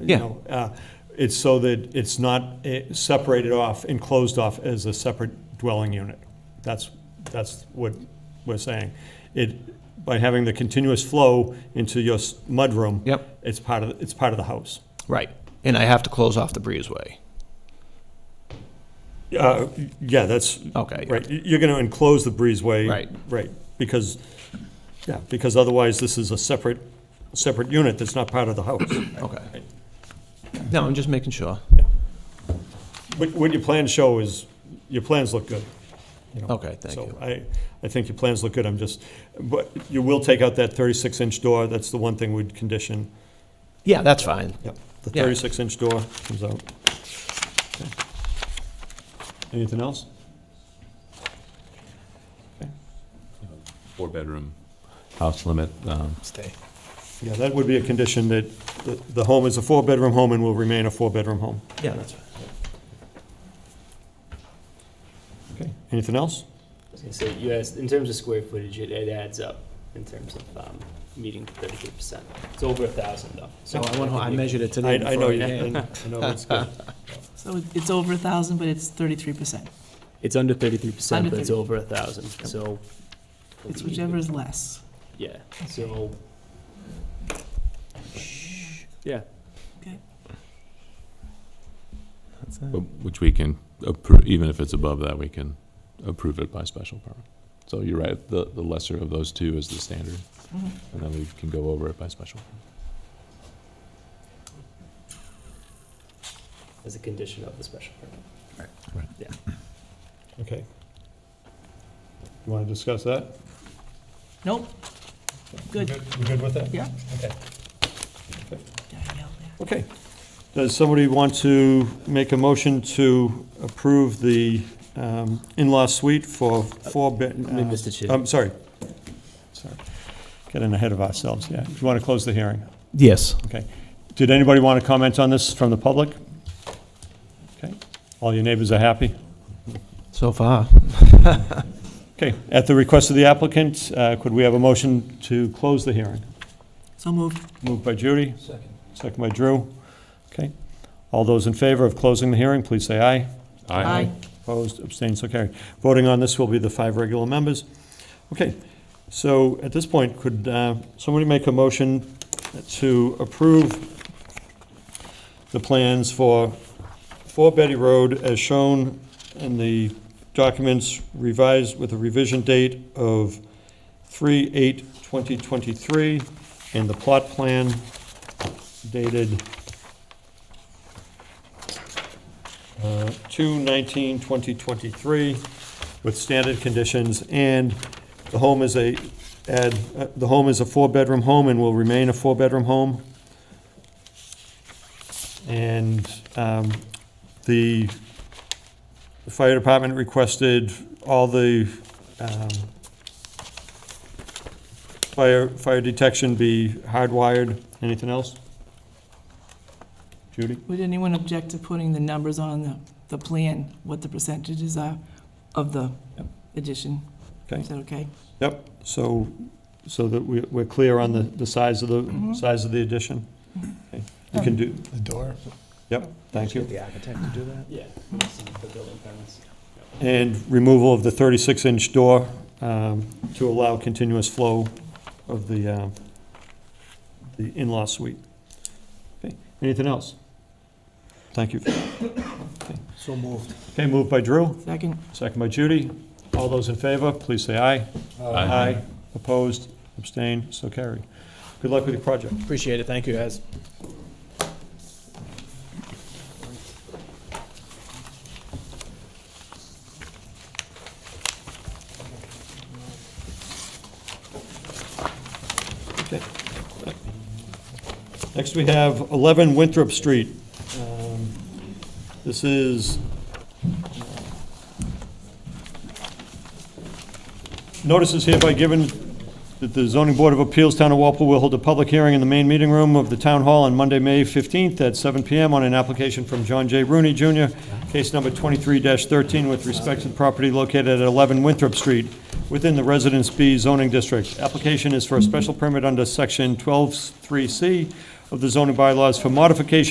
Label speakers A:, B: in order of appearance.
A: Yeah.
B: you know. uh, It's so that it's not eh, separated off, enclosed off as a separate dwelling unit. That's, that's what we're saying. It, by having the continuous flow into your s- mudroom.
A: Yep.
B: It's part of, it's part of the house.
A: Right. And I have to close off the breezeway.
B: Uh, Yeah, that's.
A: Okay, yeah.
B: Right, y- you're going to enclose the breezeway.
A: Oh, Right.
B: Right, because, yeah, because otherwise this is a separate, separate unit that's not part of the house.
A: Okay. No, I'm just making sure.
B: What, what your plans show is, your plans look good. you know.
A: Okay, thank you.
B: So I, I think your plans look good, I'm just, but you will take out that 36-inch door, that's the one thing we'd condition.
A: Yeah, that's fine.
B: Yep. The
A: Yeah.
B: 36-inch door comes out. Okay. Anything else?
C: four-bedroom house limit. um,
A: Stay.
B: Yeah, that would be a condition that the- the home is a four-bedroom home and will remain a four-bedroom home.
A: Yeah, that's fine.
B: Okay. Anything else?
D: I was gonna say, you asked, in terms of square footage, it, it adds up in terms of, um, meeting thirty-three percent. It's over a thousand though.
A: So I went home, I measured it
B: I,
A: today.
B: I know,
A: before
B: you-
A: came.
B: I I know, it's good.
E: So it- it's over a thousand, but it's thirty-three percent.
D: It's under thirty-three percent,
E: Under
D: but it's
E: 30.
D: over a thousand, so.
E: It's whichever is less.
D: Yeah, so. Yeah,
C: Which we can approve, even if it's above that, we can approve it by special permit. So you're right, the, the lesser of those two is the standard,
E: Mhm.
C: and then we can go over it by special.
D: as a condition of the special permit.
B: Okay. You want to discuss that?
E: Nope. Good.
B: You good with that?
E: Yeah.
B: Okay.
E: Danielle, yeah.
B: Okay. Does somebody want to make a motion to approve the um, in-law suite for four bed?
D: me, Mr. Chair.
B: I'm sorry. Sorry. Getting ahead of ourselves, yeah. Do you want to close the hearing?
A: Yes.
B: Okay. Did anybody want to comment on this from the public? Okay. All your neighbors are happy?
A: So far.
B: Okay. At the request of the applicant, uh, could we have a motion to close the hearing?
E: So moved.
B: Moved by Judy. Second. Second by Drew. Okay. All those in favor of closing the hearing, please say aye. Opposed, abstained, so carried. Voting on this will be the five regular members. Okay, so at this point, could uh, somebody make a motion to approve the plans for 4 Betty Road as shown in the documents revised with a revision date of 3/8/2023 and the plot plan dated uh, 2/19/2023 with standard conditions, and the home is a, add, uh, the home is a four-bedroom home and will remain a four-bedroom home. And um, the the fire department requested all the um, fire, fire detection be hardwired. Anything else? Judy?
E: Would anyone object to putting the numbers on the, the plan, what the percentages are of the
B: Yep.
E: addition?
B: Okay.
E: Is that okay?
B: Yep, so, so that we- we're clear on the, the size of the, size of the addition? Okay, You can do,
F: The door?
B: yep, thank you.
F: The architect to do that?
D: Yeah, it's the building permits.
B: And removal of the 36-inch door um, to allow continuous flow of the, uh, the in-law suite. Okay, anything else? Thank you.
F: So moved.
B: Okay, moved by Drew,
E: Second,
B: second by Judy. All those in favor, please say aye.
C: Aye.
B: Opposed, abstained, so carried. Good luck with your project.
A: Appreciate it. Thank you, guys.
B: Next, we have 11 Winthrop Street. Um, This is... uh, Notice is hereby given that the zoning board of appeals, Town of Walpole, will hold a public hearing in the main meeting room of the Town Hall on Monday, May 15th at 7 PM on an application from John J. Rooney Jr., case number 23-13, with respect to the property located at 11 Winthrop Street, within the Residence B zoning district. Application is for a special permit under Section 123C of the zoning bylaws for modification